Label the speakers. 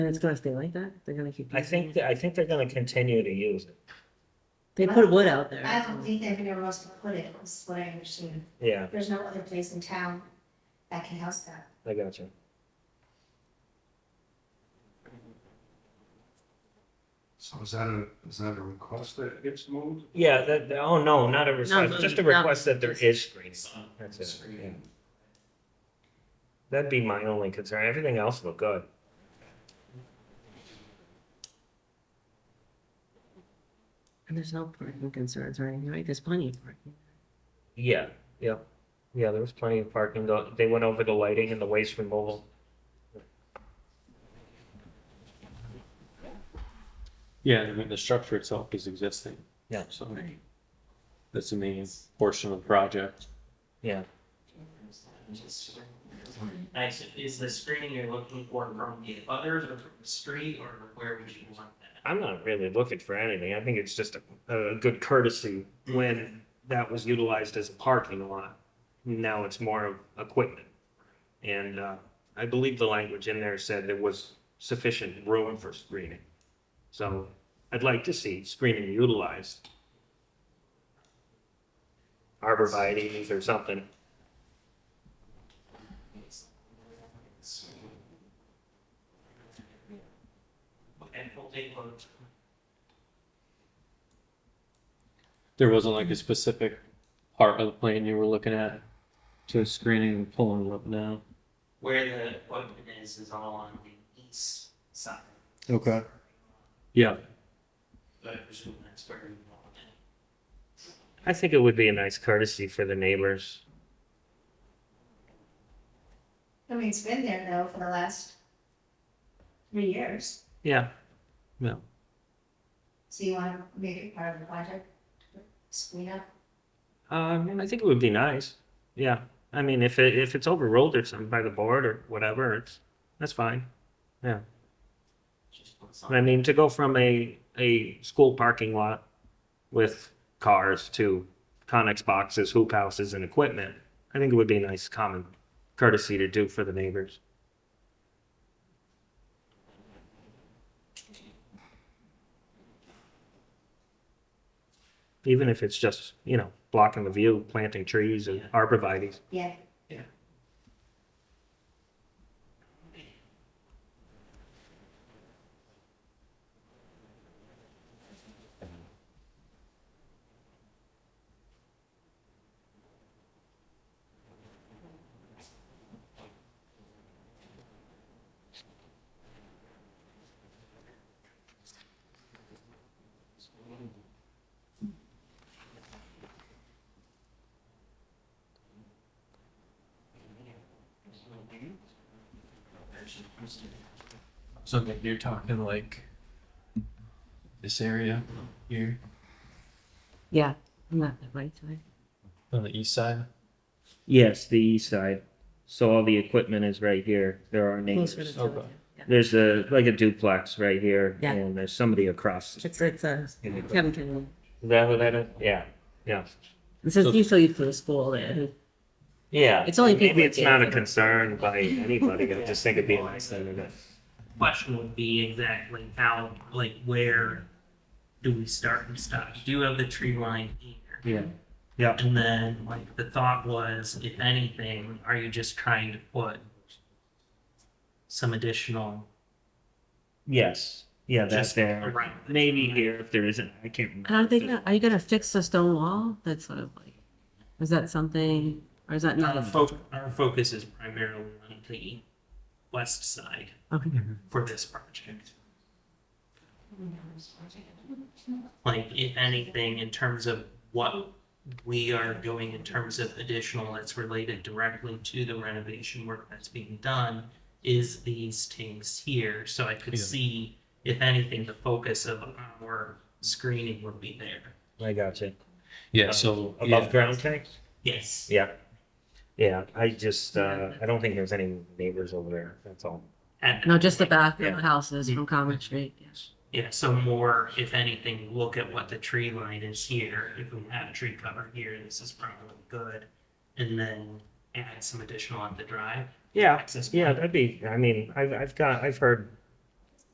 Speaker 1: And it's gonna stay like that? They're gonna keep.
Speaker 2: I
Speaker 1: using
Speaker 2: think,
Speaker 1: it?
Speaker 2: that- I think they're gonna continue to use it,
Speaker 1: They put wood out there.
Speaker 3: I don't think they're gonna else to put it, is what I understand.
Speaker 2: yeah,
Speaker 3: There's no other place in town that can house that.
Speaker 2: I got you.
Speaker 4: So is that a, is that a request that gets moved?
Speaker 2: Yeah, that, that- oh, no, not a request,
Speaker 1: no,
Speaker 2: just a
Speaker 1: no,
Speaker 2: request that there
Speaker 1: just-
Speaker 2: is screening. That's it, yeah. That'd be my only concern, everything else looked good.
Speaker 1: And there's no parking concerns or anything, right? There's plenty of parking.
Speaker 2: Yeah, yeah, yeah, there was plenty of parking, though. they went over the lighting and the waste removal.
Speaker 5: Yeah, I mean, the structure itself is existing.
Speaker 2: Yeah.
Speaker 5: So that's the main portion of the project.
Speaker 2: Yeah,
Speaker 6: Nice. Is the screening you're looking for from the others or from the street or where would you want that?
Speaker 2: I'm not really looking for anything, I think it's just a, a good courtesy when that was utilized as a parking lot. Now it's more of equipment. And, uh, I believe the language in there said there was sufficient room for screening. So I'd like to see screening utilized. Arborvitae's or something.
Speaker 6: And we'll take a look.
Speaker 5: There wasn't like a specific part of the plan you were looking at to screening and pulling it up now.
Speaker 6: where the equipment is, is all on the east side.
Speaker 5: Okay. Yeah,
Speaker 6: But I presume that's where you want it.
Speaker 2: I think it would be a nice courtesy for the neighbors.
Speaker 3: I mean, it's been there though for the last three years,
Speaker 2: Yeah.
Speaker 5: yeah.
Speaker 3: so you wanna make it part of the project? Screen up?
Speaker 2: Um, I think it would be nice. Yeah. I mean, if it, if it's overruled or something by the board or whatever, it's, that's fine.
Speaker 6: Just put
Speaker 2: I
Speaker 6: something.
Speaker 2: mean, to go from a, a school parking lot with cars to Conex boxes, hoop houses and equipment, I think it would be a nice common courtesy to do for the neighbors. Even if it's just, you know, blocking the view, planting trees and
Speaker 6: Yeah.
Speaker 2: arborvitae's.
Speaker 3: Yeah,
Speaker 5: So like, you're talking like this area here
Speaker 1: Yeah, I'm not the right side.
Speaker 5: on the east side?
Speaker 2: Yes, the east side. So all the equipment is right here. There are
Speaker 1: Closer to
Speaker 2: neighbors.
Speaker 1: the other,
Speaker 5: Okay.
Speaker 1: yeah.
Speaker 2: There's a, like a duplex right here
Speaker 1: Yeah.
Speaker 2: and there's somebody across. the-
Speaker 1: It's, it's a, Kevin Kennedy.
Speaker 2: Is that what that is? Yeah, yeah.
Speaker 1: This is
Speaker 5: So-
Speaker 1: usually for the school there.
Speaker 2: Yeah.
Speaker 1: It's only people
Speaker 2: Maybe
Speaker 1: that
Speaker 2: it's
Speaker 1: get
Speaker 2: not
Speaker 1: it.
Speaker 2: a concern by anybody. I just think it'd be a nice thing to do.
Speaker 6: question would be exactly how, like, where do we start and stop? You do have the tree line here.
Speaker 2: Yeah. Yeah.
Speaker 6: And then, like, the thought was, if anything, are you just trying to put some additional
Speaker 2: Yes. Yeah, that's
Speaker 6: just
Speaker 2: there.
Speaker 6: around? it?
Speaker 2: Maybe here if there isn't. I can't remember.
Speaker 1: And I'm
Speaker 2: if there's-
Speaker 1: thinking, are you gonna fix the stone wall? That's sort of like, is that something, or is that
Speaker 6: Our
Speaker 2: Mm.
Speaker 1: not?
Speaker 6: focus, our focus is primarily on the west side
Speaker 1: Okay.
Speaker 6: for this project. Like, if anything, in terms of what we are doing in terms of additional that's related directly to the renovation work that's being done is these things here, so I could
Speaker 5: Yeah.
Speaker 6: see, if anything, the focus of our screening would be there.
Speaker 2: I got you.
Speaker 5: Yeah, so
Speaker 2: Above ground tanks?
Speaker 6: Yes.
Speaker 2: Yeah. Yeah, I just, uh, I don't think there's any neighbors over there. That's all.
Speaker 6: And-
Speaker 1: No, just the back of
Speaker 2: Yeah.
Speaker 1: the houses from Common Street, yes.
Speaker 6: Yeah, so more, if anything, look at what the tree line is here. If we have a tree cover here, this is probably good. And then add some additional on the drive.
Speaker 2: Yeah.
Speaker 6: Access
Speaker 2: Yeah,
Speaker 6: point.
Speaker 2: that'd be, I mean, I've, I've got, I've heard